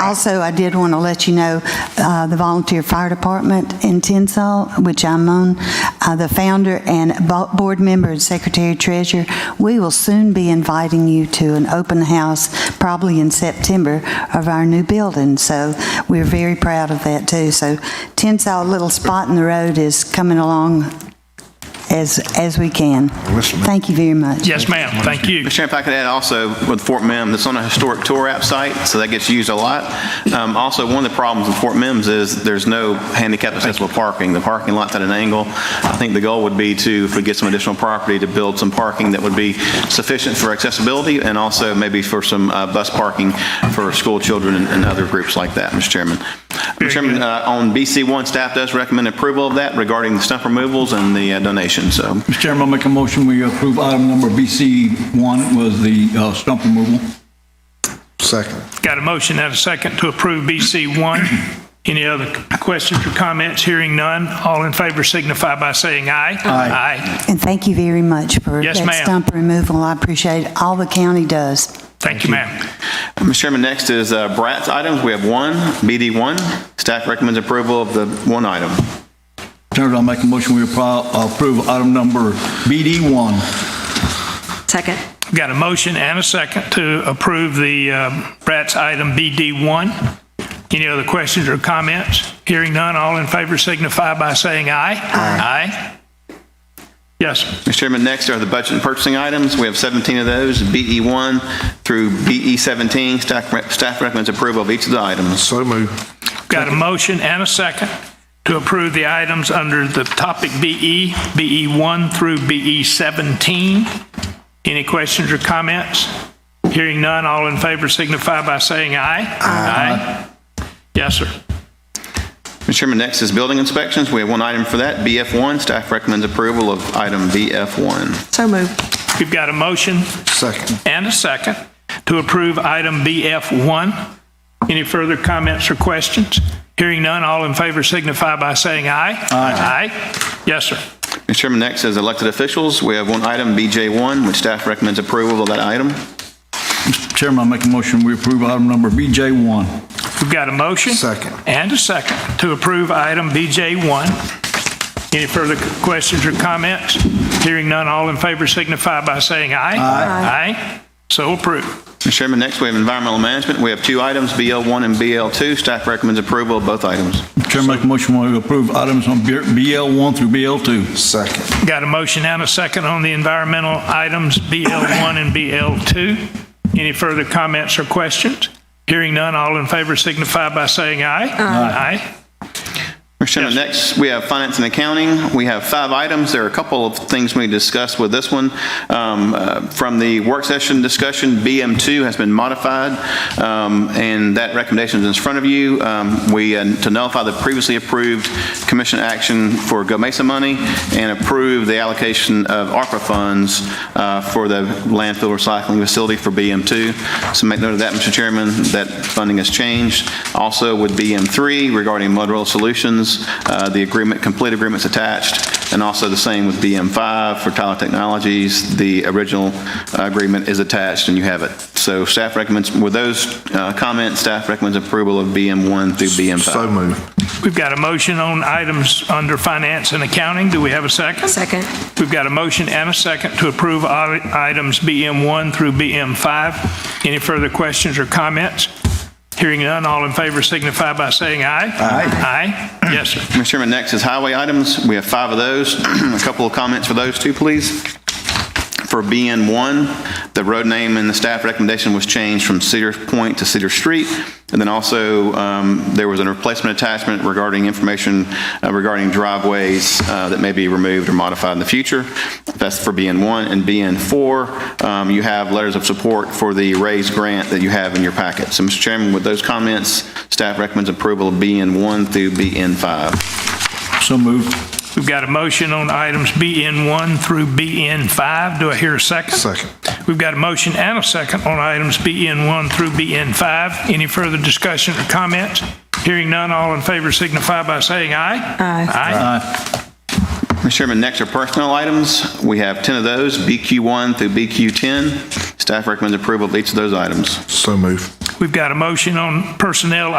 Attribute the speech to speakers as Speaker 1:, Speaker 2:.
Speaker 1: Also, I did want to let you know, uh, the volunteer fire department in Tinsall, which I'm on, uh, the founder and bo- board member and secretary treasurer, we will soon be inviting you to an open house, probably in September, of our new building. So we're very proud of that, too. So Tinsall, little spot in the road, is coming along as, as we can.
Speaker 2: Listen.
Speaker 1: Thank you very much.
Speaker 3: Yes, ma'am. Thank you.
Speaker 4: Mr. Chairman, if I could add also with Fort Mims, it's on a historic tour app site, so that gets used a lot. Um, Also, one of the problems with Fort Mims is there's no handicap accessible parking. The parking lot's at an angle. I think the goal would be to, if we get some additional property, to build some parking that would be sufficient for accessibility and also maybe for some uh, bus parking for school children and- and other groups like that, Mr. Chairman. Mr. Chairman, uh, on BC1, staff does recommend approval of that regarding the stump removals and the uh, donation, so.
Speaker 5: Mr. Chairman, I'll make a motion, we approve item number BC1 was the uh, stump removal.
Speaker 2: Second.
Speaker 3: Got a motion and a second to approve BC1. Any other questions or comments? Hearing none. All in favor signify by saying aye. Aye.
Speaker 1: And thank you very much for
Speaker 3: Yes,
Speaker 1: that
Speaker 3: ma'am.
Speaker 1: stump removal. I appreciate all the county does.
Speaker 3: Thank you, ma'am.
Speaker 4: Mr. Chairman, next is uh, Bratz items. We have one, BD1. Staff recommends approval of the one item.
Speaker 5: Chairman, I'll make a motion, we appro- approve item number BD1.
Speaker 6: Second.
Speaker 3: Got a motion and a second to approve the uh, Bratz item BD1. Any other questions or comments? Hearing none. All in favor signify by saying aye. Aye. Yes.
Speaker 4: Mr. Chairman, next are the budget and purchasing items. We have 17 of those, BE1 through BE17. Staff rec- staff recommends approval of each of the items.
Speaker 2: So move.
Speaker 3: Got a motion and a second to approve the items under the topic E, BE, BE1 through BE17. Any questions or comments? Hearing none, all in favor signify by saying aye. Aye. Yes, sir.
Speaker 4: Mr. Chairman, next is building inspections. We have one item for that, BF1. Staff recommends approval of item BF1.
Speaker 6: So moved.
Speaker 3: We've got a motion
Speaker 2: Second.
Speaker 3: and a second to approve item BF1. Any further comments or questions? Hearing none, all in favor signify by saying aye. Aye. Yes, sir.
Speaker 4: Mr. Chairman, next is elected officials. We have one item, BJ1, which staff recommends approval of that item.
Speaker 5: Mr. Chairman, I'll make a motion, we approve item number BJ1.
Speaker 3: We've got a motion.
Speaker 2: Second.
Speaker 3: And a second to approve item BJ1. Any further questions or comments? Hearing none, all in favor signify by saying aye. Aye. Aye. So approved.
Speaker 4: Mr. Chairman, next we have environmental management. We have two items, BL1 and BL2. Staff recommends approval of both items.
Speaker 5: Mr. Chairman, make a motion, we approve items on BL1 through BL2.
Speaker 2: Second.
Speaker 3: Got a motion and a second on the environmental items BL1 and BL2. Any further comments or questions? Hearing none, all in favor signify by saying aye. Aye.
Speaker 4: Mr. Chairman, next we have finance and accounting. We have five items. There are a couple of things we discussed with this one. Um, uh, From the work session discussion, BM2 has been modified, um, and that recommendation is in front of you. Um, We, uh, to nullify the previously approved commission action for Go Mesa money and approve the allocation of ARPA funds uh, for the landfill recycling facility for BM2. So make note of that, Mr. Chairman, that funding has changed. Also with BM3 regarding Motorola Solutions, uh, the agreement, complete agreement's attached, and also the same with BM5 for Tyler Technologies, the original uh, agreement is attached and you have it. So staff recommends, with those uh, comments, staff recommends approval of BM1 through BM5.
Speaker 2: So move.
Speaker 3: We've got a motion on items under finance and accounting. Do we have a second?
Speaker 6: Second.
Speaker 3: We've got a motion and a second to approve i- items BM1 through BM5. Any further questions or comments? Hearing none, all in favor signify by saying aye. Aye. Aye? Yes, sir.
Speaker 4: Mr. Chairman, next is highway items. We have five of those. A couple of comments for those two, please. For BN1, the road name and the staff recommendation was changed from Cedar Point to Cedar Street. And then also, um, there was a replacement attachment regarding information uh, regarding driveways uh, that may be removed or modified in the future. That's for BN1. And BN4, um, you have letters of support for the raised grant that you have in your packet. So, Mr. Chairman, with those comments, staff recommends approval of BN1 through BN5.
Speaker 5: So moved.
Speaker 3: We've got a motion on items BN1 through BN5. Do I hear a second?
Speaker 2: Second.
Speaker 3: We've got a motion and a second on items BN1 through BN5. Any further discussion or comments? Hearing none, all in favor signify by saying aye.
Speaker 6: Aye.
Speaker 3: Aye.
Speaker 4: Mr. Chairman, next are personnel items. We have 10 of those, BQ1 through BQ10. Staff recommends approval of each of those items.
Speaker 2: So move.
Speaker 3: We've got a motion on personnel